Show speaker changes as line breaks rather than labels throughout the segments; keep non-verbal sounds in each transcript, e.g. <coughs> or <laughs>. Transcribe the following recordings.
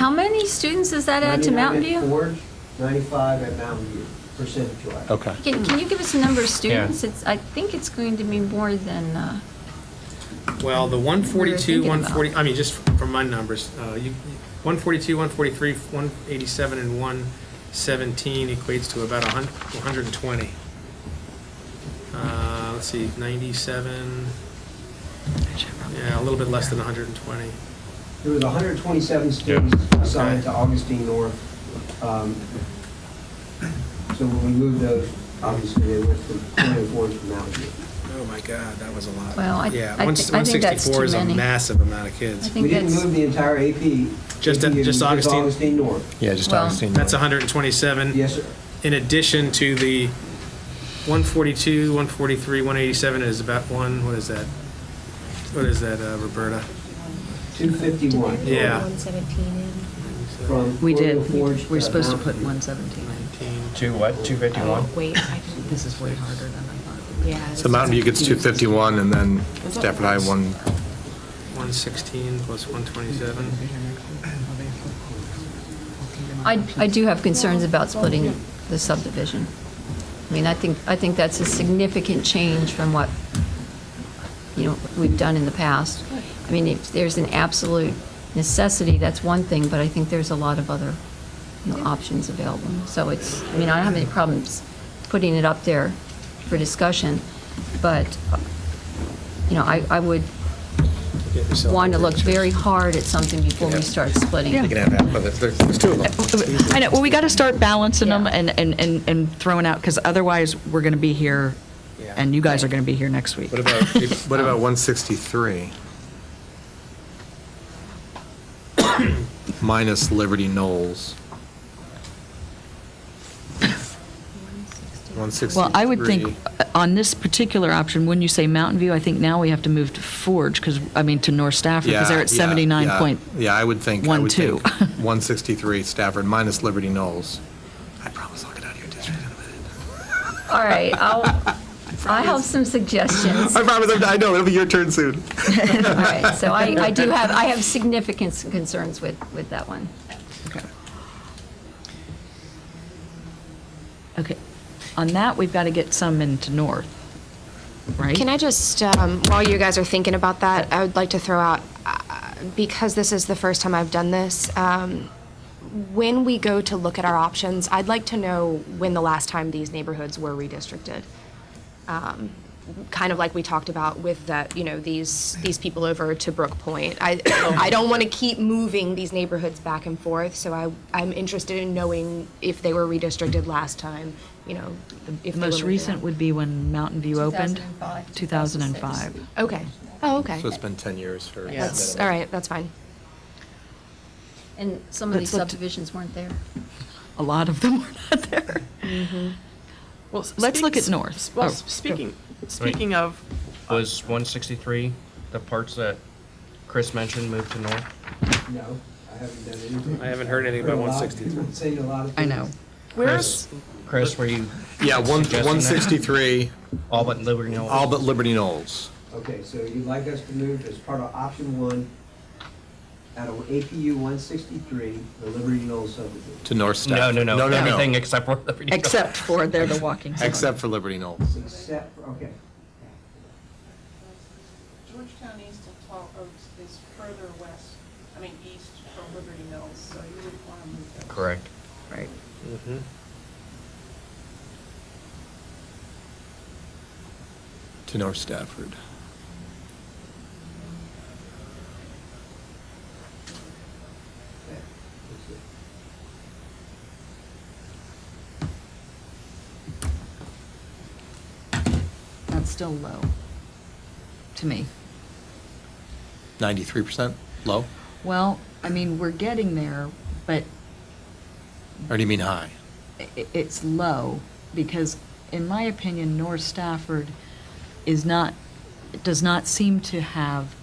many students does that add to Mountain
99 at
View?
Ford, 95 at Mountain View, percentage-wise.
Oh.
Okay.
Can, can you give us a number of students? It's, I think it's going to be more than, uh,
Well, the one
We
forty-two,
were
one
thinking about-
forty, I mean, just from my numbers, uh, you, one forty-two, one forty-three, one eighty-seven, and one seventeen equates to about a hun, one hundred and twenty. Uh, let's see, ninety-seven, yeah, a little bit less than hundred and twenty.
There was 127 students assigned
Okay.
to Augustine North. Um, So when we moved those, obviously, they went from 24 to Mountain View.
Oh, my God, that was a lot.
Well, I-
Yeah,
I
one-
thi- I think that's
164
too
is a
many.
massive amount of kids.
I think
We didn't
that's-
move the entire AP.
Just-
AP,
just Augustine?
Augustine North.
Yeah, just
Well-
Augustine.
That's hundred and twenty-seven.
Yes, sir.
in addition to the 142, 143, 187 is about one, what is that? What is that, uh, Roberta?
251.
Yeah.
One seventeen
From
We did.
Royal Forge
We're supposed to
Mountain
put
View.
117 in.
Two what,
in.
251?
Oh, wait, I didn't.
This is way harder than I thought.
Yeah. this
So Mountain View
is-
gets 251, and then Stafford High 1,
116 plus 127.
I, I do have concerns about splitting the subdivision. I mean, I think, I think that's a significant change from what, you know, we've done in the past. I mean, if there's an absolute necessity, that's one thing, but I think there's a lot of other, you know, options available. So it's, I mean, I don't have any problems putting it up there for discussion, but, you know, I, I would want to look very hard at something before we start splitting.
you can have that, but there's- there's two of them.
I know, well, we got to start balancing them
Yeah.
and, and, and and throwing out, because otherwise, we're going to be here,
Yeah.
and you guys are going to be here next week.
What
<laughs>
about, what about 163? Minus Liberty Knowles. 163.
Well, I would think, uh, on this particular option, when you say Mountain View, I think now we have to move to Forge, because, I mean, to North Stafford, because they're at
Yeah, yeah,
79
yeah.
point.
Yeah, I would think, I
one
would
two.
think
<laughs>
163 Stafford minus Liberty Knowles. I promise I'll get out of your district in a minute.
All right, I'll, I have some
<laughs>
suggestions.
I promise, I'm- I know, it'll be your turn soon.
All right, so I, I do have, I have significant concerns with, with that one.
Okay. Okay, on that, we've got to get some into North, right?
Can I just, um, while you guys are thinking about that, I would like to throw out, uh, because this is the first time I've done this, um, when we go to look at our options, I'd like to know when the last time these neighborhoods were redistricted. Um, Kind of like we talked about with that, you know, these, these people over to Brook Point. I, <coughs> I don't want to keep moving these neighborhoods back and forth, so I, I'm interested in knowing if they were redistricted last time, you know, if
The
they were
most
moved
recent
around.
would be when Mountain View opened.
2005,
2005.
Okay, oh, okay.
So it's been 10 years for.
That's, all right, that's fine.
And some of these
Let's look to-
subdivisions weren't there.
A lot of them <laughs> were not there.
Well, s-
Let's
speak-
look at
s-
North.
s- Well,
Oh,
s-
go.
speaking, speaking of,
Was 163 the parts that Chris mentioned moved to North?
No, I haven't done anything.
I haven't heard anything about
Heard a lot.
163.
Seen a lot of
I
things.
<laughs>
know.
where's,
Chris, were you?
Yeah, one-
suggesting that?
163,
All but Liberty Knowles?
all but Liberty Knowles.
Okay, so you'd like us to move as part of option one, out of APU 163, the Liberty Knowles subdivision.
To North Stafford.
No, no, no,
No,
everything
no,
except for Liberty Knowles.
Except for they're the walking zone.
Except for Liberty Knowles.
Except, for okay.
Georgetown East and Tall Oaks is further west, I mean, east from Liberty Mills, so you would want to move that.
Correct.
Right.
To North Stafford.
Okay, that's it.
That's still low, to me.
93% low?
Well, I mean, we're getting there, but
Or do you mean high?
i- it's low because, in my opinion, North Stafford is not, does not seem to have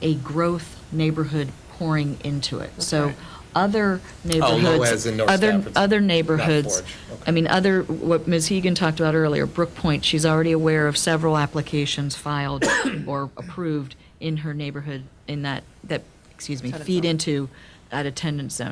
a growth neighborhood pouring into it. So other
low
neighborhoods.
as Oh, in North
other-
Stafford's
Other
not
neighborhoods.
Forge. Okay.
I mean, other, what Ms. Hegan talked about earlier, Brook Point, she's already aware of several applications filed <coughs> or approved in her neighborhood in that, that, excuse me, feed into that attendance zone.